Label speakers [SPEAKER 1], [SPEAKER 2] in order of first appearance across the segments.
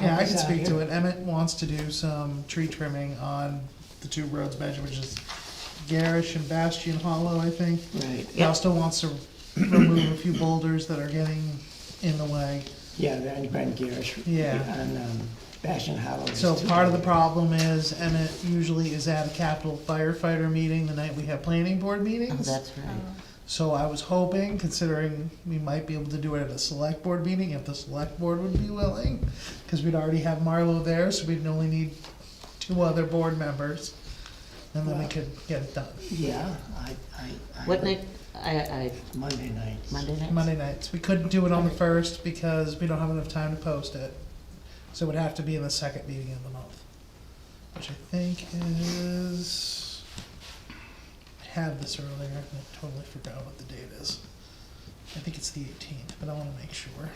[SPEAKER 1] Yeah, I can
[SPEAKER 2] It's out
[SPEAKER 1] speak to
[SPEAKER 2] here.
[SPEAKER 1] it. Emmett wants to do some tree trimming on the two roads measure, which is Garish and Bastion Hollow, I think.
[SPEAKER 2] Right,
[SPEAKER 1] He
[SPEAKER 2] yeah,
[SPEAKER 1] also wants to remove a few boulders that are getting in the way.
[SPEAKER 2] yeah, they're on Brent Garrish.
[SPEAKER 1] Yeah.
[SPEAKER 2] On, um, Bastion Hollow.
[SPEAKER 1] So part of the problem is Emmett usually is at a capital firefighter meeting the night we have planning board
[SPEAKER 3] Oh,
[SPEAKER 1] meetings.
[SPEAKER 3] that's right.
[SPEAKER 1] So I was hoping, considering we might be able to do it at a select board meeting, if the select board would be willing, because we'd already have Marlo there, so we'd only need two other board members, and then we
[SPEAKER 2] Wow.
[SPEAKER 1] could get it done.
[SPEAKER 2] Yeah, I, I. I-
[SPEAKER 3] What night, I, I,
[SPEAKER 2] Monday nights.
[SPEAKER 3] Monday night?
[SPEAKER 1] Monday nights, we couldn't do it on the first because we don't have enough time to post it, so it would have to be in the second meeting of the month, which I think is, I had this earlier, and I totally forgot what the date is. I think it's the eighteenth, but I wanna make sure.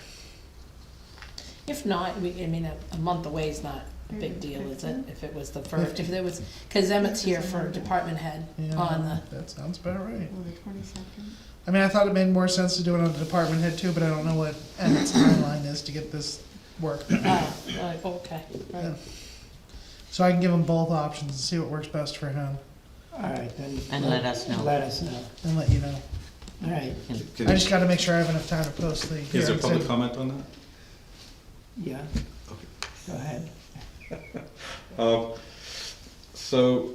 [SPEAKER 4] If not, we, I mean, a, a month away is not a big deal, is it? If it was the first, if there was, cause Emmett's here for department head
[SPEAKER 1] Yeah,
[SPEAKER 4] on the,
[SPEAKER 1] That sounds about right.
[SPEAKER 3] Well, the twenty-second.
[SPEAKER 1] I mean, I thought it made more sense to do it on the department head too, but I don't know what Emmett's timeline is to get this work. done.
[SPEAKER 4] oh, right, okay, right.
[SPEAKER 1] So I can give him both options and see what works best for him
[SPEAKER 2] All right, then.
[SPEAKER 3] And let us know.
[SPEAKER 2] Let us know,
[SPEAKER 1] and let you know.
[SPEAKER 2] all right,
[SPEAKER 1] I
[SPEAKER 5] Can-
[SPEAKER 1] just gotta make sure I have enough time to post the.
[SPEAKER 5] Is there
[SPEAKER 1] hearings.
[SPEAKER 5] public comment on that?
[SPEAKER 2] yeah. Go ahead.
[SPEAKER 5] Um, So,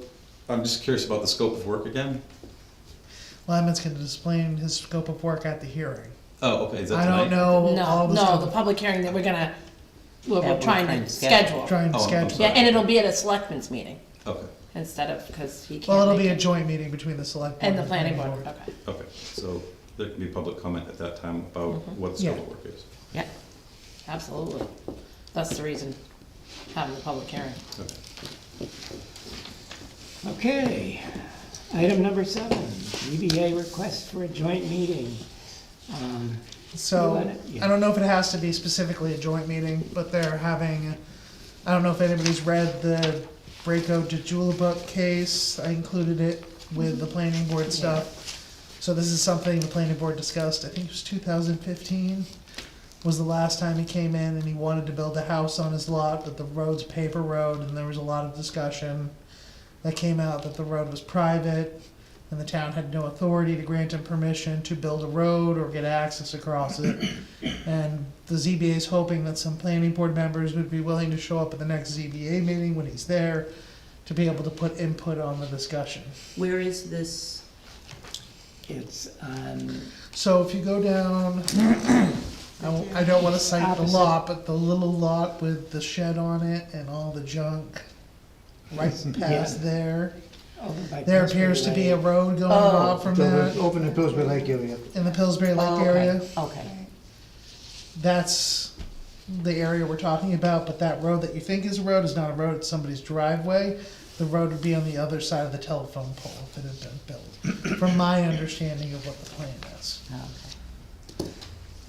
[SPEAKER 5] I'm just curious about the scope of work again.
[SPEAKER 1] Well, Emmett's gonna explain his scope of work at the hearing.
[SPEAKER 5] Oh, okay, is that
[SPEAKER 1] I
[SPEAKER 5] tonight?
[SPEAKER 1] don't know all
[SPEAKER 4] No,
[SPEAKER 1] the
[SPEAKER 4] no, the
[SPEAKER 1] stuff,
[SPEAKER 4] public hearing that we're gonna, we're,
[SPEAKER 3] Yeah,
[SPEAKER 4] we're trying to schedule.
[SPEAKER 1] trying to
[SPEAKER 5] Oh, I'm
[SPEAKER 1] schedule.
[SPEAKER 4] Yeah,
[SPEAKER 5] sorry.
[SPEAKER 4] and it'll be at a selectmen's meeting
[SPEAKER 5] Okay,
[SPEAKER 4] instead of, cause he can't.
[SPEAKER 1] Well, it'll
[SPEAKER 4] make
[SPEAKER 1] be a
[SPEAKER 4] it.
[SPEAKER 1] joint meeting between the select. board
[SPEAKER 4] And the planning board, okay.
[SPEAKER 5] okay, so there can be public comment at that time about what the
[SPEAKER 1] Mm-hmm. Yeah.
[SPEAKER 5] scope of work is.
[SPEAKER 4] Yeah, absolutely. That's the reason having the public hearing.
[SPEAKER 5] Okay.
[SPEAKER 2] Okay, item number seven, ZBA request for a joint meeting. Um,
[SPEAKER 1] So,
[SPEAKER 2] Let it- yeah.
[SPEAKER 1] I don't know if it has to be specifically a joint meeting, but they're having, I don't know if anybody's read the Braco de Julebuk case. I included it with
[SPEAKER 2] Mm-hmm.
[SPEAKER 1] the planning board stuff. So this is something the planning board discussed, I think it was two thousand fifteen, was the last time he came in and he wanted to build a house on his lot, but the road's paper road, and there was a lot of discussion that came out that the road was private, and the town had no authority to grant him permission to build a road or get access across it. And the ZBA is hoping that some planning board members would be willing to show up at the next ZBA meeting when he's there to be able to put input on the discussion.
[SPEAKER 3] Where is this?
[SPEAKER 2] It's um, on
[SPEAKER 1] So if you go down, I, won't- I don't wanna cite the lot, but the little lot with the shed on it and all the junk right past there,
[SPEAKER 2] over by.
[SPEAKER 1] there appears to be a uh, road going off from that
[SPEAKER 6] uh, Open the Pillsbury Lake area.
[SPEAKER 1] in the Pillsbury
[SPEAKER 3] Oh,
[SPEAKER 1] Lake
[SPEAKER 3] okay, Oh,
[SPEAKER 1] area.
[SPEAKER 3] Okay,
[SPEAKER 1] that's the area we're talking about, but that road that you think is a road is not a road, it's somebody's driveway. The road would be on the other side of the telephone pole if it had been built, from my understanding of what the plan is.
[SPEAKER 3] okay.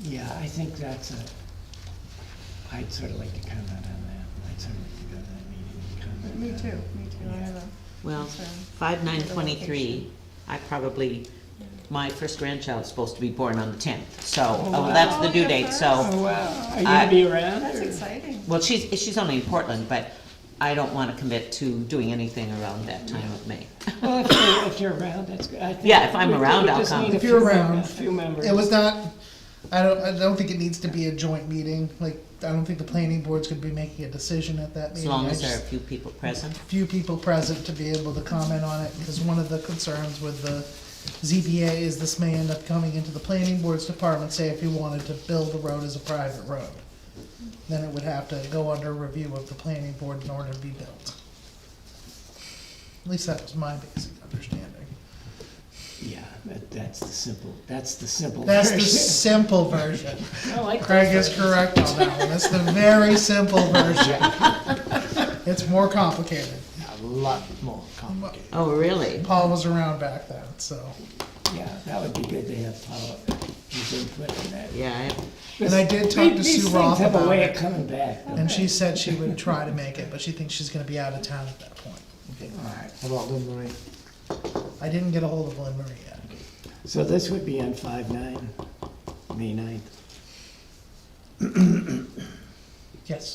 [SPEAKER 2] Yeah, I think that's a, I'd sort of like to comment on that. I'd sort of like to go to that meeting and comment.
[SPEAKER 7] Me
[SPEAKER 2] on
[SPEAKER 7] too,
[SPEAKER 2] it.
[SPEAKER 7] me too, I have a.
[SPEAKER 3] Well,
[SPEAKER 7] Sorry.
[SPEAKER 3] five nine twenty-three, I probably, my first grandchild is supposed to be born on the tenth, so, oh, well, that's the
[SPEAKER 7] Oh,
[SPEAKER 3] due
[SPEAKER 7] your
[SPEAKER 3] date,
[SPEAKER 7] first.
[SPEAKER 3] so.
[SPEAKER 2] Oh, wow. Are you
[SPEAKER 3] I-
[SPEAKER 2] gonna be around?
[SPEAKER 7] That's
[SPEAKER 2] or-
[SPEAKER 7] exciting.
[SPEAKER 3] Well, she's, she's only in Portland, but I don't wanna commit to doing anything around that time of May.
[SPEAKER 2] Well, if you're, if you're around, that's good. I think
[SPEAKER 3] Yeah, if I'm
[SPEAKER 2] we- we
[SPEAKER 3] around, I'll
[SPEAKER 2] just
[SPEAKER 3] come.
[SPEAKER 2] need a
[SPEAKER 1] If you're
[SPEAKER 2] few mem-
[SPEAKER 1] around.
[SPEAKER 2] A few members.
[SPEAKER 1] It was not, I don't, I don't think it needs to be a joint meeting, like, I don't think the planning board's gonna be making a decision at that
[SPEAKER 3] As
[SPEAKER 1] meeting.
[SPEAKER 3] long
[SPEAKER 1] I
[SPEAKER 3] as there are a
[SPEAKER 1] just-
[SPEAKER 3] few people present.
[SPEAKER 1] Few people present to be able to comment on it, because one of the concerns with the ZBA is this may end up coming into the planning board's department, say if you wanted to build the road as a private road. Then it would have to go under review of the planning board in order to be built. At least that was my basic understanding.
[SPEAKER 2] Yeah, that, that's the simple, that's the simple.
[SPEAKER 1] That's the
[SPEAKER 2] version.
[SPEAKER 1] simple version.
[SPEAKER 4] Oh, I like those
[SPEAKER 1] Craig is
[SPEAKER 4] versions.
[SPEAKER 1] correct on that one, that's the very simple version. It's more complicated.
[SPEAKER 6] A lot more complicated.
[SPEAKER 3] Oh, really?
[SPEAKER 1] Paul was around back then, so.
[SPEAKER 2] Yeah, that would be good to have Paula, his input on that.
[SPEAKER 3] Yeah,
[SPEAKER 1] And I did talk to
[SPEAKER 2] These-
[SPEAKER 1] Sue
[SPEAKER 2] These things
[SPEAKER 1] Roth
[SPEAKER 2] have a
[SPEAKER 1] about
[SPEAKER 2] way of
[SPEAKER 1] it,
[SPEAKER 2] coming back. though.
[SPEAKER 1] and she said she would try to make it, but she thinks she's gonna be out of town at that point.
[SPEAKER 2] All right.
[SPEAKER 6] How about Lynn Marie?
[SPEAKER 1] I didn't get a hold of Lynn Marie yet.
[SPEAKER 2] So this would be on five nine, May ninth.
[SPEAKER 1] Yes.